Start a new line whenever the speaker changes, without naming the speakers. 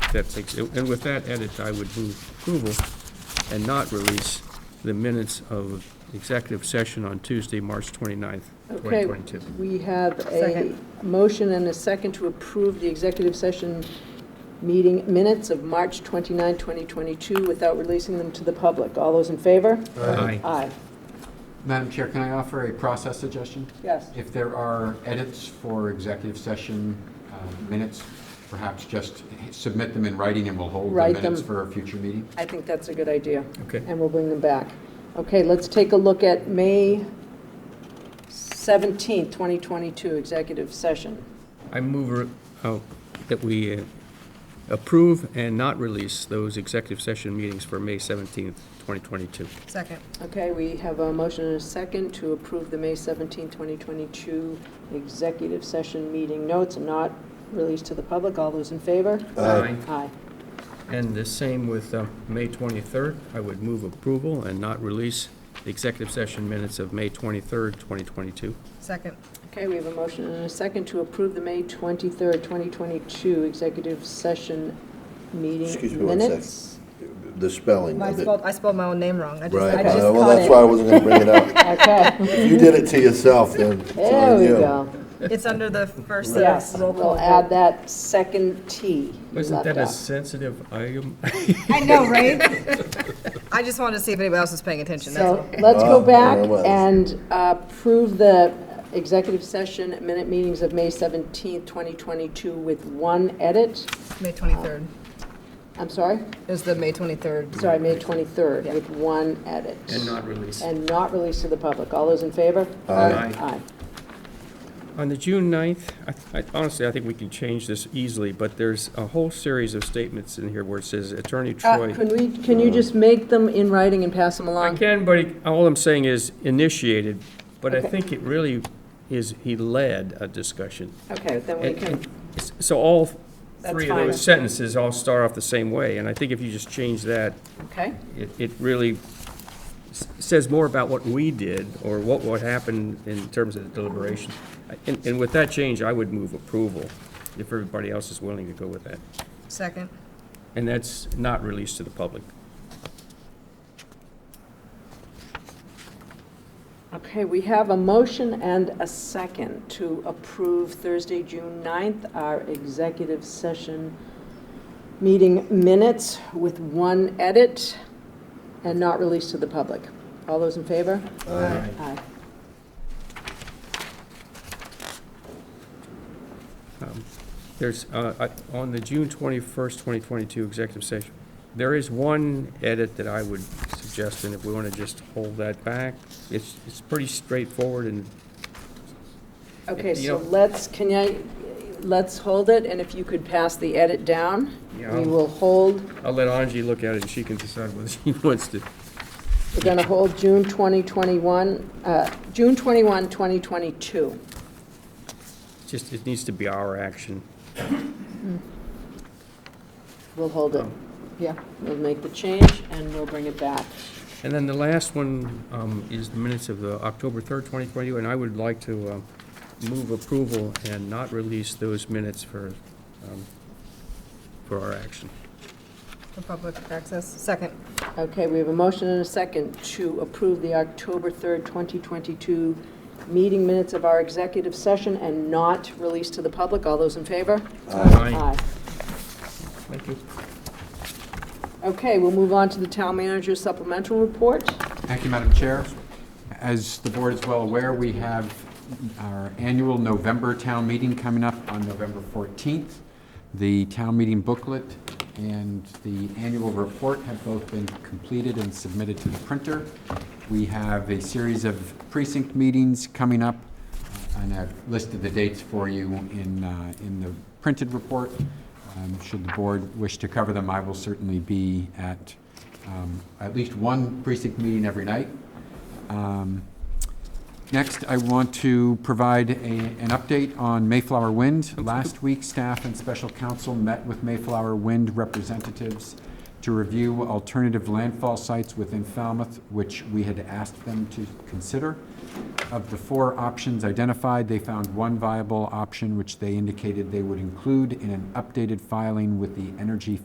that takes, and with that edit, I would move approval and not release the minutes of executive session on Tuesday, March 29th,
Okay,
2022.
we have a
Second.
motion and a second to approve the executive session meeting minutes of March 29, 2022, without releasing them to the public. All those in favor?
Aye.
Aye.
Madam Chair, can I offer a process suggestion?
Yes.
If there are edits for executive session uh, minutes, perhaps just submit them in writing and we'll hold the
Write
minutes
them.
for a future meeting.
I think that's a good idea,
Okay.
and we'll bring them back. Okay, let's take a look at May 17, 2022, executive session.
I move, uh, oh, that we uh, approve and not release those executive session meetings for May 17th, 2022.
Second.
Okay, we have a motion and a second to approve the May 17, 2022 executive session meeting notes and not released to the public. All those in favor?
Aye.
Aye.
And the same with uh, May 23rd. I would move approval and not release the executive session minutes of May 23rd, 2022.
Second.
Okay, we have a motion and a second to approve the May 23, 2022 executive session
Excuse
meeting
me one second.
minutes.
The spelling
I
of it.
spelled, I spelled my own name wrong. I just,
Right, Uh,
I just
well,
caught
that's why I
it.
wasn't gonna bring it up.
Okay,
If you did it to yourself, then it's
there
on
we
you.
go.
It's under the first
Yes,
sentence. roll call
we'll add
vote.
that second T you
Isn't
left
that a
out.
sensitive item?
I know, right? I just wanted to see if anybody else was paying attention, that's all.
So let's go
Oh, there
back
it was.
and approve the executive session minute meetings of May 17, 2022 with one edit.
May 23rd
I'm sorry,
is the May 23rd.
sorry, May 23rd with one edit.
And not release.
And not released to the public. All those in favor?
Aye.
Aye.
On the June 9th, I- I- honestly, I think we can change this easily, but there's a whole series of statements in here where it says Attorney
Uh,
Troy.
Can we, can you just make them in writing and pass them
I
along?
can, but all I'm saying is initiated, but I
Okay.
think it really is, he led a discussion.
Okay, then we
And-
can,
and s- So all
That's
three of
fine.
those sentences all start off the same way, and I think if you just change that,
okay,
it, it really s- says more about what we did or what would happen in terms of deliberation. And, and with that change, I would move approval if everybody else is willing to go with that.
Second.
And that's not released to the public.
okay, we have a motion and a second to approve Thursday, June 9th, our executive session meeting minutes with one edit and not released to the public. All those in favor?
Aye.
Aye.
Um, There's, uh, I- on the June 21st, 2022 executive session, there is one edit that I would suggest, and if we want to just hold that back, it's, it's pretty straightforward and
Okay,
You
so
know-
let's, can I, let's hold it, and if you could pass the edit down,
Yeah.
we will hold
I'll let Angie look at it and she can decide whether she wants to.
We're going to hold June 2021, uh, June 21, 2022.
Just, it needs to be our action.
We'll hold it. Yeah, we'll make the change and we'll bring it back.
And then the last one um, is the minutes of the October 3rd, 2022, and I would like to um, move approval and not release those minutes for, um, for our action.
For public access. Second.
Okay, we have a motion and a second to approve the October 3rd, 2022 meeting minutes of our executive session and not release to the public. All those in favor?
Aye. Thank you.
Okay, we'll move on to the town manager supplemental report.
Thank you, Madam Chair. As the board is well aware, we have our annual November town meeting coming up on November 14th. The town meeting booklet and the annual report have both been completed and submitted to the printer. We have a series of precinct meetings coming up, and I've listed the dates for you in, uh, in the printed report. Um, Should the board wish to cover them, I will certainly be at um, at least one precinct meeting every night. Um, Next, I want to provide a, an update on Mayflower Wind. Last week, staff and special counsel met with Mayflower Wind representatives to review alternative landfall sites within Falmouth, which we had asked them to consider. Of the four options identified, they found one viable option, which they indicated they would include in an updated filing with the Energy